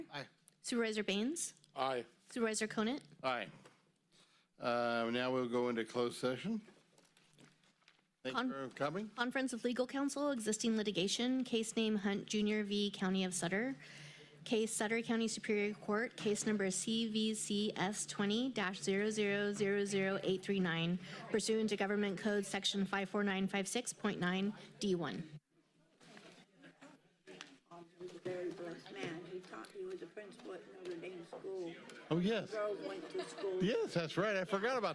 Supervisor Baines? Aye. Supervisor Conant? Aye. Uh, Now we'll go into closed session. Thank you Con- for coming. Conference of Legal Counsel, existing litigation, case name Hunt Jr. v. County of Sutter. Case Sutter County Superior Court, case number CVCS 20-0000839 pursuant to Government Code Section 54956.9 D1. Um, he was a very blessed man. He taught, he was a principal at Notre Dame School. Oh, yes. Rowe went to school. Yes, that's right. I forgot about